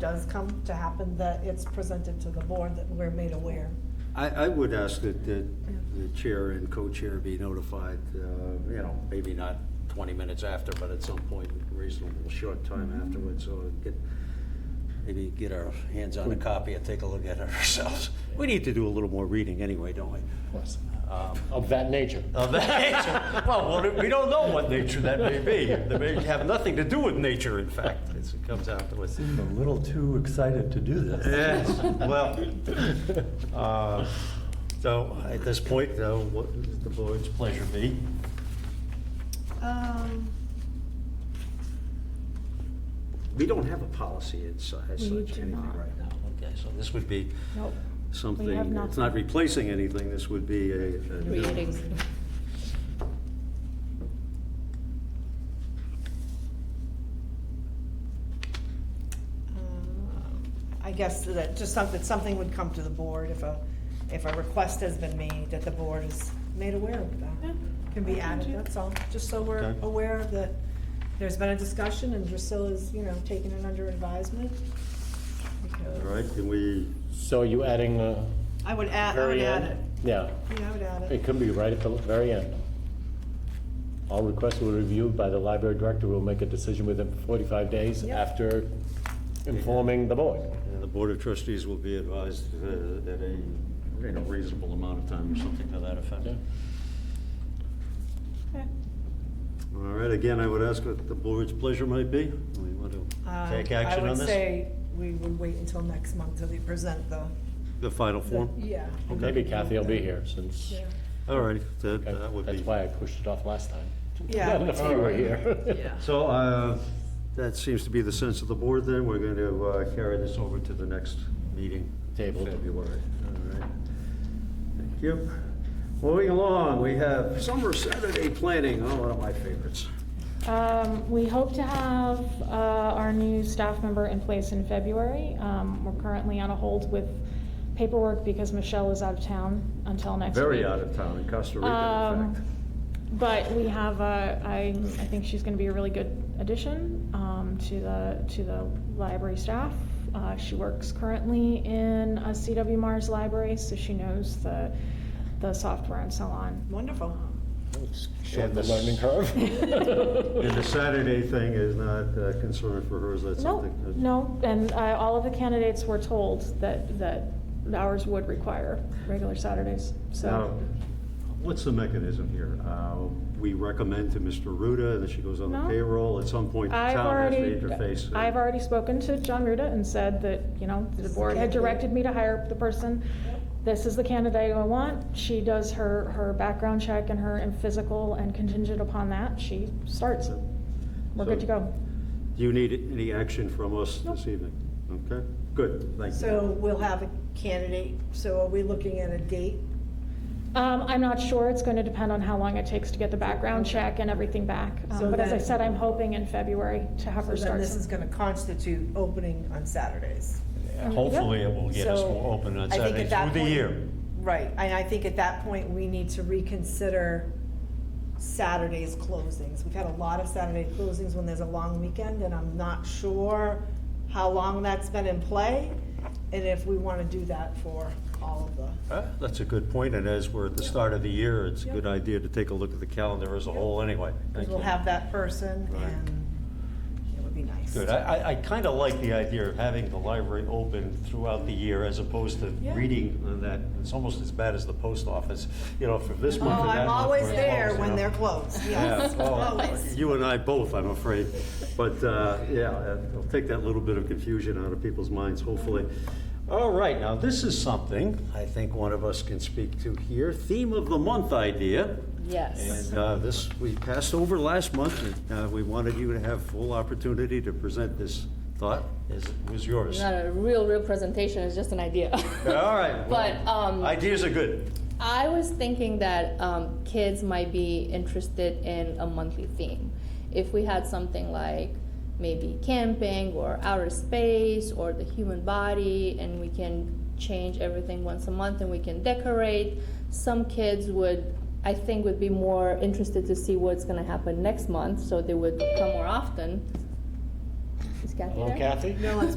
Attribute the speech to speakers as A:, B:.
A: does come to happen, that it's presented to the board, that we're made aware.
B: I, I would ask that, that the chair and co-chair be notified, uh, you know, maybe not twenty minutes after, but at some point, reasonable short time afterwards, so we get, maybe get our hands on a copy and take a look at it ourselves. We need to do a little more reading anyway, don't we?
C: Yes. Um, Of that nature.
B: Of that nature. Well, what- we don't know what nature that may be. That may have nothing to do with nature, in fact, as it comes out to us.
D: I'm a little too excited to do this.
B: Yes, well, uh, so at this point, though, what is the board's pleasure be?
A: Um,
B: We don't have a policy as su- as
A: We
B: such,
A: do
B: anything
A: not.
B: right now. Okay, so this would be
A: nope.
B: something,
A: We have
B: it's not
A: nothing.
B: replacing anything, this would be a. a new-
E: Creating.
A: Um, uh, I guess that just something, something would come to the board if a, if a request has been made, that the board is made aware of
E: Yeah.
A: that. Can be added, that's all, just so we're
B: Okay.
A: aware that there's been a discussion and Drusilla's, you know, taking it under advisement.
B: All
A: because-
B: right, can we,
C: So you adding uh
A: I would add, I would
C: very
A: add
C: end?
A: it.
C: Yeah,
A: Yeah, I would add
C: it
A: it.
C: could be right at the very end. All requests were reviewed by the library director, we will make a decision within 45 days
A: Yep.
C: after informing the board.
B: and uh, the Board of Trustees will be advised uh, at a, you know, reasonable amount of time or something to that effect.
C: Okay.
A: Okay.
B: All right, again, I would ask what the board's pleasure might be. We want to
A: Um,
B: take action
A: I
B: on
A: would
B: this?
A: say we would wait until next month till they present the,
B: The final
A: the-
B: form?
A: yeah.
C: Maybe Kathy will be here since,
A: Yeah.
B: All right, that, that would
C: that's
B: be.
C: why I pushed it off last time.
A: Yeah.
C: If you were here.
B: So, uh, that seems to be the sense of the board then. We're going to, uh, carry this over to the next meeting.
C: Tabled.
B: February. All right. Thank you. Moving along, we have summer Saturday planning, oh, one of my favorites.
E: Um, we hope to have, uh, our new staff member in place in February. Um, we're currently on a hold with paperwork because Michelle is out of town until next week.
B: Very out of town in Costa Rica, in
E: Um,
B: fact.
E: But we have, uh, I, I think she's gonna be a really good addition, um, to the, to the library staff. Uh, she works currently in a CW Mars library, so she knows the, the software and so on.
A: Wonderful.
C: Short
B: And
C: the
B: this-
C: learning
B: And the
C: curve.
B: Saturday thing is not a concern for her, is that
E: No,
B: something? that-
E: no, and uh, all of the candidates were told that, that ours would require regular Saturdays,
B: Now,
E: so.
B: what's the mechanism here? Uh, We recommend to Mr. Ruda, and then she goes on the
E: No.
B: payroll. At some point, the
E: I've
B: town has to
E: already,
B: interface. uh,
E: I've already spoken to John Ruda and said that, you know, the board had directed me to hire the person. This is the candidate I want. She does her, her background check and her and physical, and contingent upon that, she starts. We're good to go.
B: Do you need any action from us this
E: Nope.
B: evening? Okay, good, thank you.
A: So we'll have a candidate, so are we looking at a date?
E: Um, I'm not sure. It's going to depend on how long it takes to get the background check and everything back. Um,
A: So
E: But as I
A: then-
E: said, I'm hoping in February to have
A: So
E: her
A: then
E: start.
A: this is gonna constitute opening on Saturdays.
E: Um,
B: Hopefully, it will get us
A: So
B: more open
A: I
B: on
A: think
B: Saturday
A: at that
B: through the
A: point-
B: year.
A: Right, and I think at that point, we need to reconsider Saturday's closings. We've had a lot of Saturday closings when there's a long weekend, and I'm not sure how long that's been in play, and if we wanna do that for all of the,
B: Uh, That's a good point, and as we're at the start of the year, it's a good idea to take a look at the calendar as a whole anyway.
A: because
B: Thank
A: we'll
B: you.
A: have that person,
B: Right.
A: and it would be nice.
B: Good, I, I- I kind of like the idea of having the library open throughout the year as opposed to
A: Yeah.
B: reading on that. It's almost as bad as the post office, you know, for this
A: Oh,
B: month or that
A: I'm
B: month.
A: always
B: we're
A: there
B: closed, you
A: when
B: know.
A: they're closed,
B: Yeah,
A: yes,
B: well,
A: always.
B: you and I both, I'm afraid. But, uh, yeah, uh, I'll take that little bit of confusion out of people's minds, hopefully. All right, now, this is something I think one of us can speak to here, theme of the month idea.
F: Yes.
B: And uh, this, we passed over last month, and uh, we wanted you to have full opportunity to present this thought, as it was yours.
F: Not a real, real presentation, it's just an idea.
B: All right. well,
F: But, um,
B: Ideas are good.
F: I was thinking that um, kids might be interested in a monthly theme. If we had something like maybe camping or outer space or the human body, and we can change everything once a month and we can decorate, some kids would, I think, would be more interested to see what's going to happen next month, so they would come more often. Is Kathy
C: Hello,
F: there?
C: Kathy?
A: No, it's